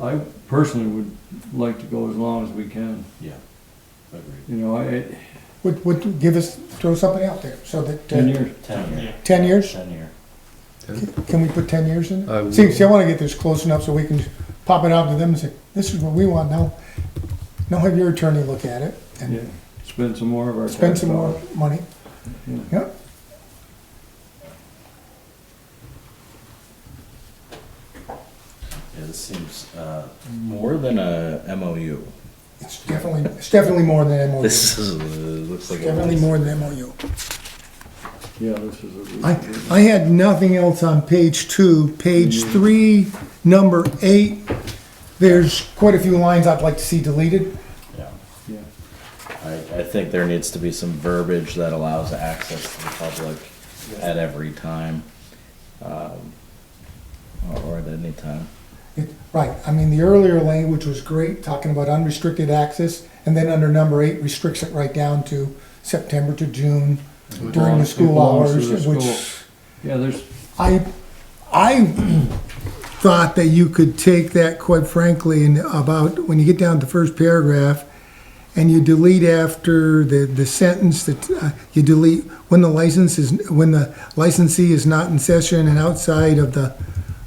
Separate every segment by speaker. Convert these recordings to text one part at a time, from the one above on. Speaker 1: I personally would like to go as long as we can,
Speaker 2: Yeah, agreed.
Speaker 1: you know, I,
Speaker 3: Would, would you give us, throw something out there so that,
Speaker 1: ten
Speaker 3: uh,
Speaker 1: years,
Speaker 2: Ten year.
Speaker 3: ten years?
Speaker 2: Ten year.
Speaker 3: Can we put ten years in?
Speaker 4: I
Speaker 3: it? See,
Speaker 4: would.
Speaker 3: see, I wanna get this close enough so we can pop it out to them and say, this is what we want now. Now have your attorney look at it
Speaker 1: yeah,
Speaker 3: and
Speaker 1: spend some more of our.
Speaker 3: spend
Speaker 1: tax
Speaker 3: some more
Speaker 1: dollars.
Speaker 3: money.
Speaker 1: Yeah.
Speaker 3: Yep.
Speaker 2: Yeah, this seems, uh, more than a MOU.
Speaker 3: It's definitely, it's definitely more than MOU.
Speaker 2: This is, uh, looks like. a-
Speaker 3: Definitely more than MOU.
Speaker 1: Yeah, this is. a-
Speaker 3: I, I had nothing else on page two. Page
Speaker 1: Mm.
Speaker 3: three, number eight, there's quite a few lines I'd like to see deleted.
Speaker 2: Yeah,
Speaker 1: Yeah,
Speaker 2: I, I think there needs to be some verbiage that allows access to the public at every time. um, Or or at any time.
Speaker 3: It- Right, I mean, the earlier language was great, talking about unrestricted access, and then under number eight restricts it right down to September to June during the
Speaker 1: Belongs-
Speaker 3: school
Speaker 1: belongs to
Speaker 3: hours,
Speaker 1: the
Speaker 3: which
Speaker 1: school. yeah, there's,
Speaker 3: I, I thought that you could take that, quite frankly, and about, when you get down to the first paragraph, and you delete after the, the sentence that, uh, you delete, when the license is, when the licensee is not in session and outside of the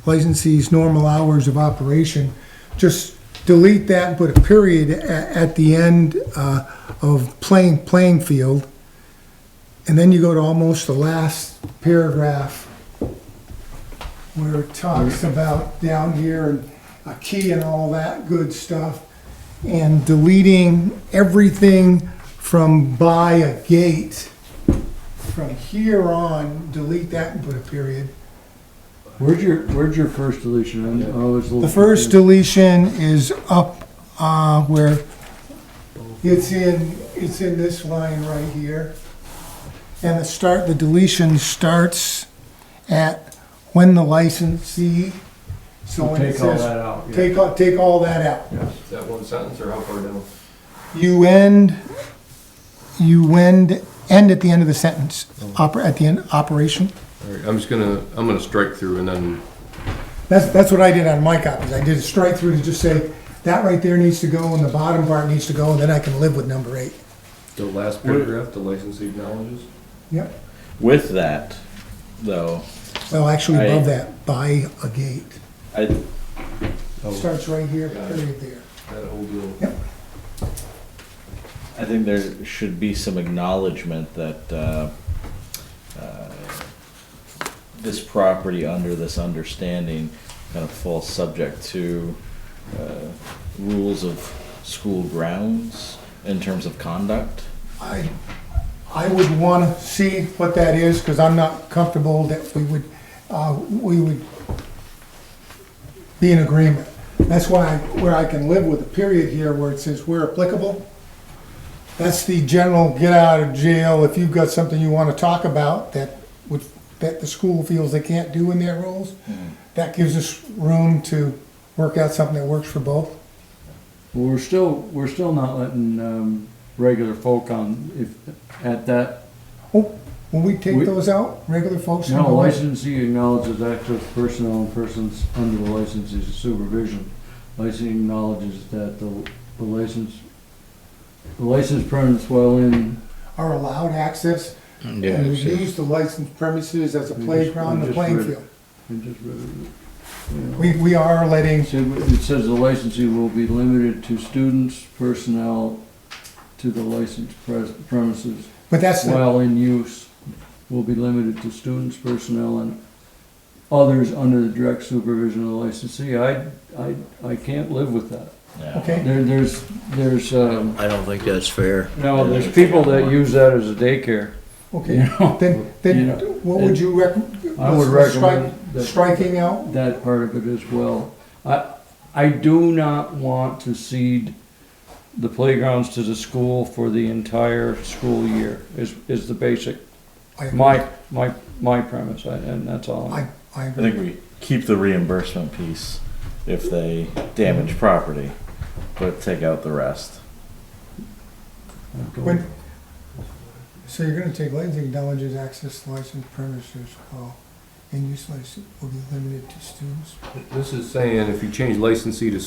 Speaker 3: licensee's normal hours of operation, just delete that and put a period a- at the end, uh, of playing, playing field. And then you go to almost the last paragraph where it talks about down here and a key and all that good stuff. And deleting everything from by a gate. From here on, delete that and put a period.
Speaker 1: where'd your, where's your first deletion? I'm- I was a little
Speaker 3: The
Speaker 1: confused.
Speaker 3: first deletion is up, uh, where it's in, it's in this line right here. And the start, the deletion starts at when the licensee, so when it
Speaker 1: Take all
Speaker 3: says.
Speaker 1: that out. yeah.
Speaker 3: Take, all- take all that out.
Speaker 5: Is that one sentence or how far down?
Speaker 3: You end, you end, end at the end of the sentence, oper, at the end, operation.
Speaker 5: All right, I'm just gonna, I'm gonna strike through and then,
Speaker 3: That's, that's what I did on my copies. I did a strike through to just say, that right there needs to go and the bottom part needs to go, and then I can live with number eight.
Speaker 5: the last paragraph, the licensee acknowledges?
Speaker 3: Yep.
Speaker 2: With that, though,
Speaker 3: Well, actually
Speaker 2: I-
Speaker 3: above that, by a gate.
Speaker 2: I,
Speaker 3: Starts right here,
Speaker 5: Got it.
Speaker 3: period there.
Speaker 5: That whole deal.
Speaker 2: I think there should be some acknowledgement that, uh, uh, this property under this understanding kind of falls subject to, uh, rules of school grounds in terms of conduct.
Speaker 3: I, I would wanna see what that is, cause I'm not comfortable that we would, uh, we would be in agreement. That's why, where I can live with a period here where it says where applicable. That's the general get out of jail, if you've got something you wanna talk about that would, that the school feels they can't do in their rules. That gives us room to work out something that works for both.
Speaker 1: Well, we're still, we're still not letting, um, regular folk on, if, at that,
Speaker 3: Oh, will we take
Speaker 1: We-
Speaker 3: those out, regular folks?
Speaker 1: no, licensee acknowledges active personnel and persons under the licensee's supervision. Licensee acknowledges that the, the license, the licensed permits while in.
Speaker 3: Are allowed access
Speaker 4: Yeah,
Speaker 3: and
Speaker 4: see.
Speaker 3: use the licensed premises as a
Speaker 1: We just-
Speaker 3: playground,
Speaker 1: we
Speaker 3: and a
Speaker 1: just
Speaker 3: playing
Speaker 1: read it.
Speaker 3: field.
Speaker 1: I just read it, you know.
Speaker 3: We, we are letting,
Speaker 1: It said- it says the licensee will be limited to students, personnel, to the licensed pres- premises.
Speaker 3: but that's the,
Speaker 1: while in use will be limited to students, personnel, and others under the direct supervision of the licensee. I, I, I can't live with that.
Speaker 2: Yeah.
Speaker 3: okay,
Speaker 1: There, there's, there's, um,
Speaker 4: I don't think that's fair.
Speaker 1: no, there's people that use that as a daycare, you
Speaker 3: okay.
Speaker 1: know?
Speaker 3: Then,
Speaker 1: You
Speaker 3: then
Speaker 1: know,
Speaker 3: what would you recommend?
Speaker 1: I would recommend that,
Speaker 3: Striking out?
Speaker 1: that part of it as well. I, I do not want to cede the playgrounds to the school for the entire school year, is, is the basic,
Speaker 3: I-
Speaker 1: my, my, my premise, I- and that's all.
Speaker 3: I, I
Speaker 2: I
Speaker 3: agree.
Speaker 2: think we keep the reimbursement piece if they damage property, but take out the rest.
Speaker 3: When- So you're gonna take licensing acknowledges access to licensed premises, while and use license will be limited to students.
Speaker 5: This is saying if you change licensee to